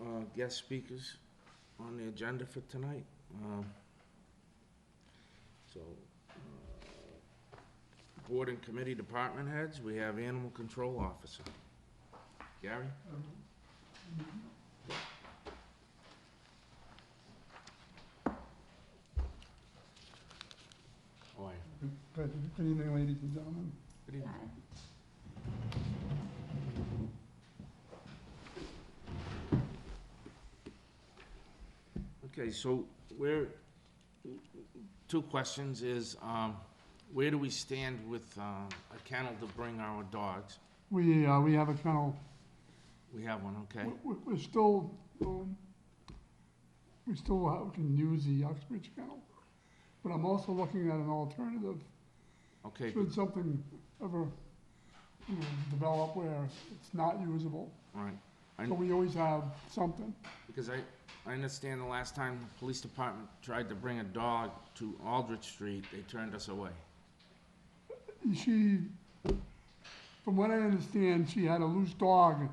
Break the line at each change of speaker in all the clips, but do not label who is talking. Uh, guest speakers on the agenda for tonight. Um, So, uh, board and committee department heads, we have animal control officer. Gary? How are you?
Good good evening, ladies and gentlemen.
Good evening. Okay, so where, two questions is, um, where do we stand with, uh, a kennel to bring our dogs?
We, uh, we have a kennel,
We have one, okay?
We- we- we're still, um, we still ha- can use the Uxbridge kennel, but I'm also looking at an alternative,
Okay,
should
good,
something ever, you know, develop where it's not usable.
all right.
So we always have something.
Because I, I understand the last time the police department tried to bring a dog to Aldrich Street, they turned us away.
She, from what I understand, she had a loose dog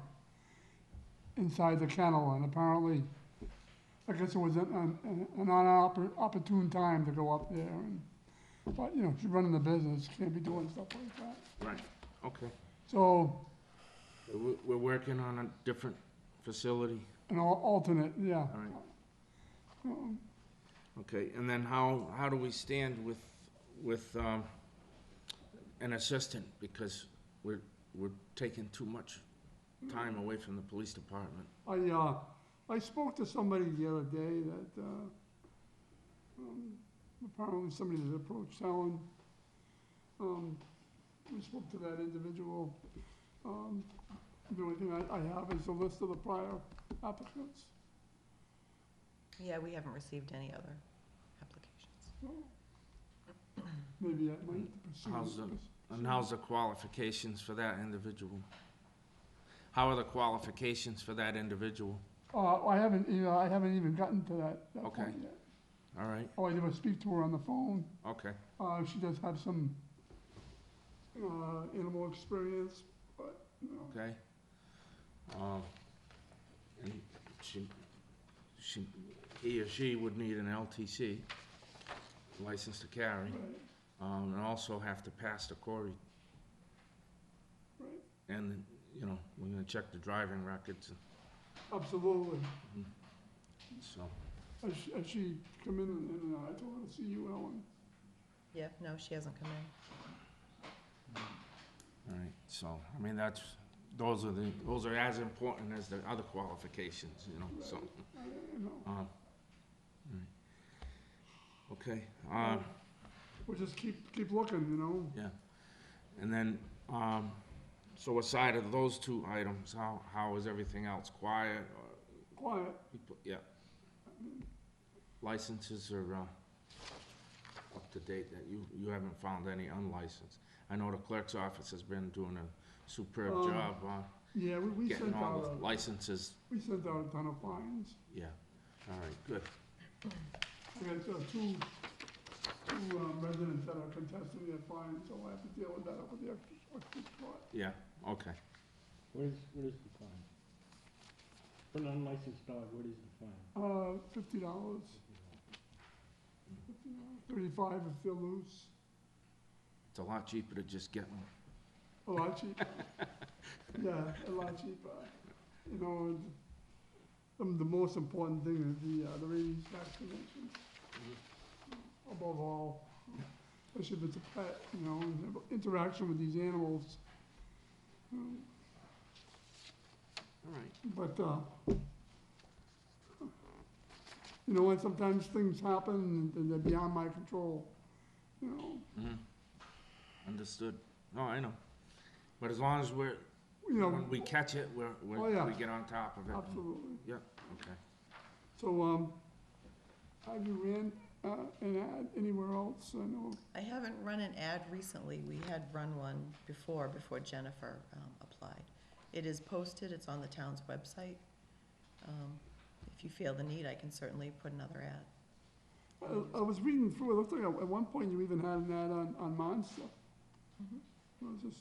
inside the kennel, and apparently, I guess it was an, an, an unoppor- opportune time to go up there, and, but, you know, she's running the business, can't be doing stuff like that.
Right, okay.
So,
We're, we're working on a different facility,
an al- alternate, yeah.
all right? Okay, and then how, how do we stand with, with, um, an assistant? Because we're, we're taking too much time away from the police department.
I, uh, I spoke to somebody the other day that, uh, um, apparently somebody that approached Helen. Um, we spoke to that individual. Um, the only thing I, I have is a list of the prior applicants.
Yeah, we haven't received any other applications.
Maybe I might pursue.
How's the- And how's the qualifications for that individual? How are the qualifications for that individual?
Uh, I haven't, you know, I haven't even gotten to that, that
Okay.
point yet.
All right,
Oh, I did I speak to her on the phone.
okay,
Uh, she does have some, uh, animal experience, but, you know.
okay. Um, and she, she, he or she would need an LTC, license to carry.
but-
um, and also have to pass the quarry.
Right.
And, you know, we're gonna check the driving records,
Absolutely.
so,
Has she, has she come in and, and uh, I told her to see you, Ellen.
Yeah, no, she hasn't come in.
all right, so, I mean, that's, those are the, those are as important as the other qualifications, you know, so.
I, I know,
um, all right. Okay, um,
we'll just keep, keep looking, you know?
yeah, and then, um, so aside of those two items, how, how is everything else, quiet or
Quiet,
People, yeah. Licenses are, uh, up to date, that you, you haven't found any unlicensed. I know the clerk's office has been doing a superb
Um,
job on
yeah, we, we
getting
sent
all
out,
the
a-
licenses,
we sent out a ton of fines.
yeah, all right, good,
We got uh, two, two um, residents that are contesting their fines, so I have to deal with that over there.
yeah, okay.
What is, what is the fine? For an unlicensed dog, what is the fine?
Uh, fifty dollars, thirty-five if they're loose,
It's a lot cheaper to just get one,
a lot cheaper. Yeah, a lot cheaper. You know, and, um, the most important thing is the, uh, the rabies vaccination. Above all, especially if it's a pet, you know, and the interaction with these animals. Um,
all right,
But, uh, you know, and sometimes things happen and they're beyond my control, you know.
mhm. Understood, no, I know, but as long as we're,
You know,
when we catch it, we're,
Oh,
we're,
yeah.
we get on top of it.
absolutely.
Okay,
So, um, have you ran, uh, an ad anywhere else? I know
I haven't run an ad recently. We had run one before, before Jennifer um, applied. It is posted, it's on the town's website. Um, If you feel the need, I can certainly put another ad.
I, I was reading through, it looked like at at one point you even had an ad on, on Monster.
Mhm.
I was just